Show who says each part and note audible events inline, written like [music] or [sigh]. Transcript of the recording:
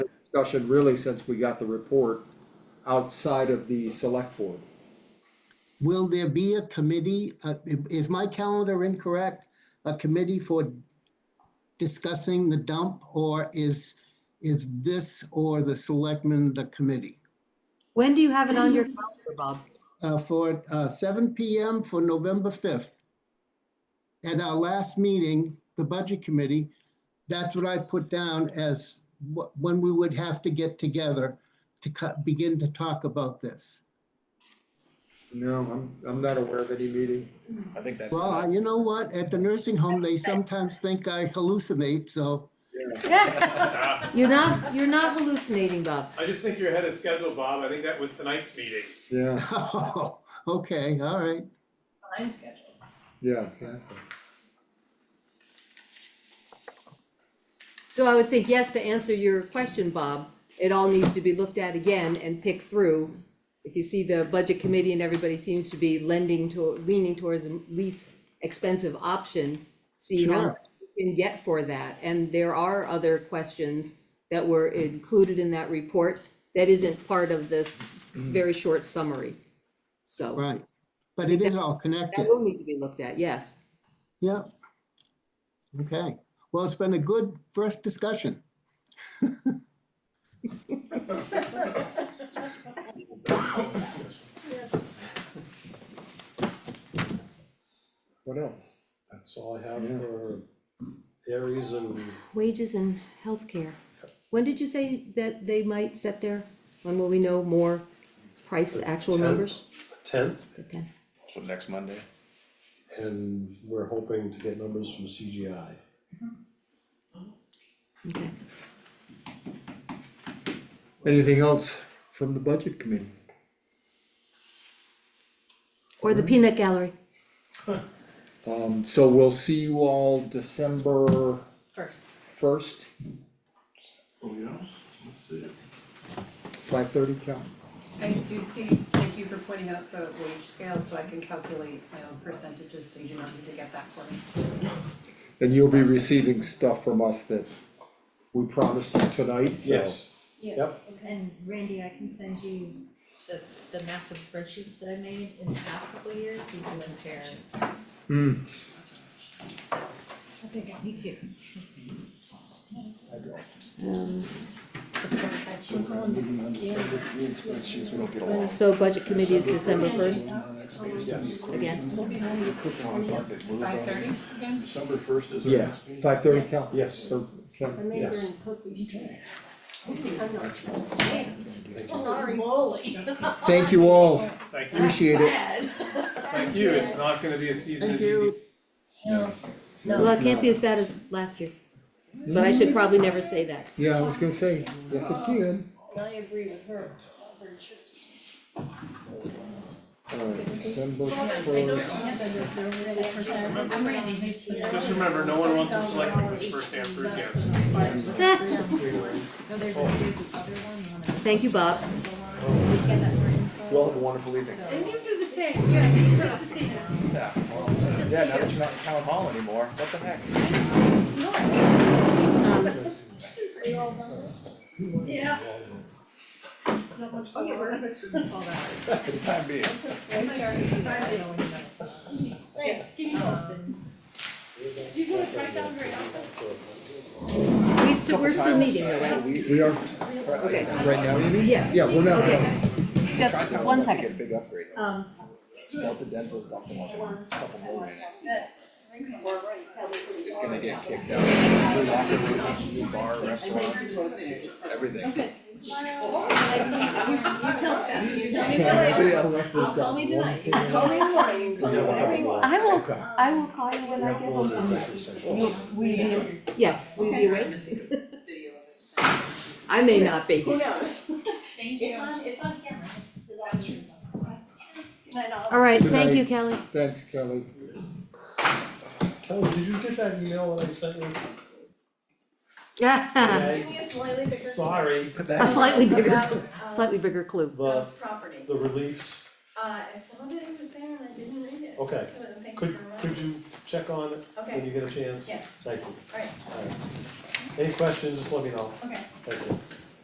Speaker 1: discussion really since we got the report outside of the select board.
Speaker 2: Will there be a committee, uh, i- is my calendar incorrect? A committee for discussing the dump or is, is this or the selectmen the committee?
Speaker 3: When do you have it on your calendar, Bob?
Speaker 2: Uh, For uh, seven PM for November 5th. At our last meeting, the budget committee, that's what I put down as wh- when we would have to get together to cut- begin to talk about this.
Speaker 1: No, I'm, I'm not aware of any meeting.
Speaker 4: I think that's.
Speaker 2: Well, I- you know what? At the nursing home, they sometimes think I hallucinate, so [laughs]
Speaker 3: You're not, you're not hallucinating, Bob.
Speaker 5: I just think you're ahead of schedule, Bob. I think that was tonight's meeting.
Speaker 1: Yeah,
Speaker 2: okay, all right.
Speaker 6: Behind schedule.
Speaker 1: yeah, exactly.
Speaker 3: So I would think, yes, to answer your question, Bob, it all needs to be looked at again and picked through. If you see the budget committee and everybody seems to be lending to, leaning towards the least expensive option, see how
Speaker 2: Sure.
Speaker 3: much you can get for that. And there are other questions that were included in that report that isn't part of this very short summary. So
Speaker 2: Right, but it is all connected,
Speaker 3: that will need to be looked at, yes.
Speaker 2: yeah. Okay, well, it's been a good first discussion.
Speaker 1: What else?
Speaker 7: That's all I have
Speaker 1: Yeah.
Speaker 7: for Aries and
Speaker 3: Wages and healthcare. When did you say that they might set their, when will we know more price, actual
Speaker 7: tenth.
Speaker 3: numbers?
Speaker 7: tenth,
Speaker 3: The tenth.
Speaker 4: So next Monday,
Speaker 7: and we're hoping to get numbers from CGI.
Speaker 3: okay.
Speaker 1: Anything else from the budget committee?
Speaker 3: Or the peanut gallery.
Speaker 1: Um, so we'll see you all December
Speaker 6: First.
Speaker 1: first,
Speaker 8: Oh, yeah, let's see.
Speaker 1: five thirty, Cal?
Speaker 6: I do see, thank you for pointing out the wage scales so I can calculate my own percentages, so you do not need to get that for me.
Speaker 1: And you'll be receiving stuff from us that we promised you tonight, so.
Speaker 7: Yes,
Speaker 9: Yeah,
Speaker 7: Yep.
Speaker 9: and Randy, I can send you the, the massive spreadsheets that I made in the past couple of years, so you can compare.
Speaker 1: Hmm.
Speaker 9: I think I need to. Um,
Speaker 3: So budget committee is December first
Speaker 7: yes,
Speaker 3: again.
Speaker 6: Five thirty again?
Speaker 8: December first is our
Speaker 1: Yeah,
Speaker 8: next meeting.
Speaker 1: five thirty, Cal?
Speaker 7: Yes.
Speaker 1: Or Ken?
Speaker 7: yes.
Speaker 9: Sorry.
Speaker 1: Thank you all,
Speaker 5: Thank you.
Speaker 1: appreciate it.
Speaker 5: Thank you. It's not gonna be a season
Speaker 2: Thank
Speaker 5: of easy.
Speaker 2: you.
Speaker 3: Well, it can't be as bad as last year, but I should probably never say that.
Speaker 1: Yeah, I was gonna say, yes, it can.
Speaker 9: I agree with her, her
Speaker 1: Alright, December
Speaker 9: I know she
Speaker 1: first,
Speaker 9: has a real percent.
Speaker 6: I'm Randy.
Speaker 5: Just remember, no one wants a selectman who's first and first answer.
Speaker 9: No, there's, a- there's the other one, the one I-
Speaker 3: [laughs] Thank you, Bob.
Speaker 9: We get that for info.
Speaker 4: you all have a wonderful evening.
Speaker 9: So-
Speaker 6: you do the same, yeah, you just to see that.
Speaker 4: Yeah, well, uh, yeah, now that you're not in town hall anymore, what the heck?
Speaker 3: Um,
Speaker 6: Yeah.
Speaker 4: For the time being.
Speaker 3: Um, we still, we're still meeting though, right?
Speaker 1: we are,
Speaker 3: Okay,
Speaker 1: right now, Amy?
Speaker 3: yes.
Speaker 1: Yeah, we're not,
Speaker 3: Okay. Just
Speaker 4: Tri-Town's
Speaker 3: one
Speaker 4: about
Speaker 3: second.
Speaker 4: to Get a big upgrade.
Speaker 9: Um,
Speaker 4: Delta Dental's got them like a couple more in it. It's gonna get kicked out. New locker rooms, new bar, restaurant, everything.
Speaker 1: Say I left the
Speaker 6: Call me
Speaker 1: job.
Speaker 6: tonight, call me in the morning, call me whenever you want.
Speaker 3: I will, I will call you when
Speaker 7: We
Speaker 3: I
Speaker 7: have
Speaker 3: get
Speaker 7: to go
Speaker 3: home
Speaker 7: into
Speaker 3: from
Speaker 7: executive session.
Speaker 3: We, we, will- yes, we
Speaker 6: [laughs]
Speaker 3: be away. I may not be.
Speaker 6: Who knows?
Speaker 9: It's on, it's on camera, it's, it's on.
Speaker 6: And I'll-
Speaker 3: All right,
Speaker 1: Good
Speaker 3: thank
Speaker 1: night.
Speaker 3: you, Kelly.
Speaker 1: Thanks, Kelly.
Speaker 7: Kelly, did you get that email that I sent you?
Speaker 6: Give me a slightly bigger.
Speaker 7: Sorry,
Speaker 3: [laughs] A slightly bigger, slightly bigger clue.
Speaker 7: the,
Speaker 6: Uh, property.
Speaker 7: the reliefs,
Speaker 6: Uh, I saw that it was there and I didn't read it.
Speaker 7: okay,
Speaker 6: So thank you
Speaker 7: could,
Speaker 6: for
Speaker 7: could
Speaker 6: reminding me.
Speaker 7: you check on it when
Speaker 6: Okay,
Speaker 7: you get a chance?
Speaker 6: yes,
Speaker 7: Thank you.
Speaker 6: alright,
Speaker 7: All right. Any questions, just let me know,
Speaker 6: okay.
Speaker 7: thank you.